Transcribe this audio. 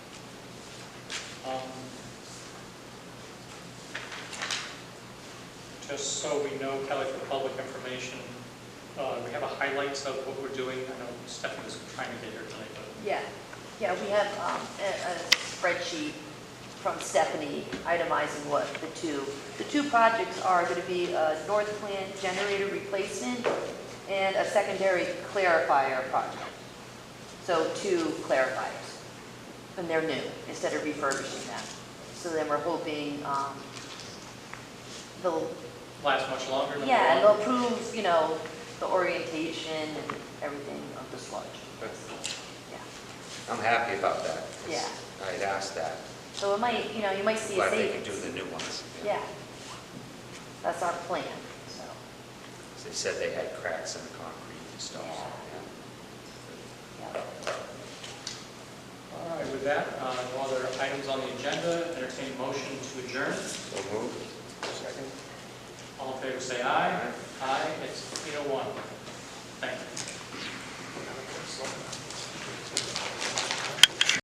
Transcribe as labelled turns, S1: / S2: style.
S1: Um, just so we know, Kelly, for public information, uh, we have a highlights of what we're doing. I know Stephanie was trying to get here tonight, but
S2: Yeah, yeah, we have um, a a spreadsheet from Stephanie itemizing what the two, the two projects are going to be a North Plant generator replacement and a secondary clarifier project. So two clarifiers, and they're new, instead of refurbishing them. So then we're hoping um, they'll,
S1: last much longer. number
S2: yeah, and
S1: one.
S2: they'll prove, you know, the orientation and everything of the sludge, yeah.
S3: I'm happy about that. 'cause
S2: Yeah.
S3: I had asked that,
S2: So it might, you know, you might see a
S3: glad they could
S2: savings.
S3: do the new ones.
S2: Yeah. That's our plan, so,
S3: 'Cause They said they had cracks in the concrete and stuff. so,
S2: yeah.
S1: All right, with that, uh, no other items on the agenda, entertain motion to adjourn.
S3: yeah. So moved. Second.
S1: All in favor, say aye. Aye, it's 8:01.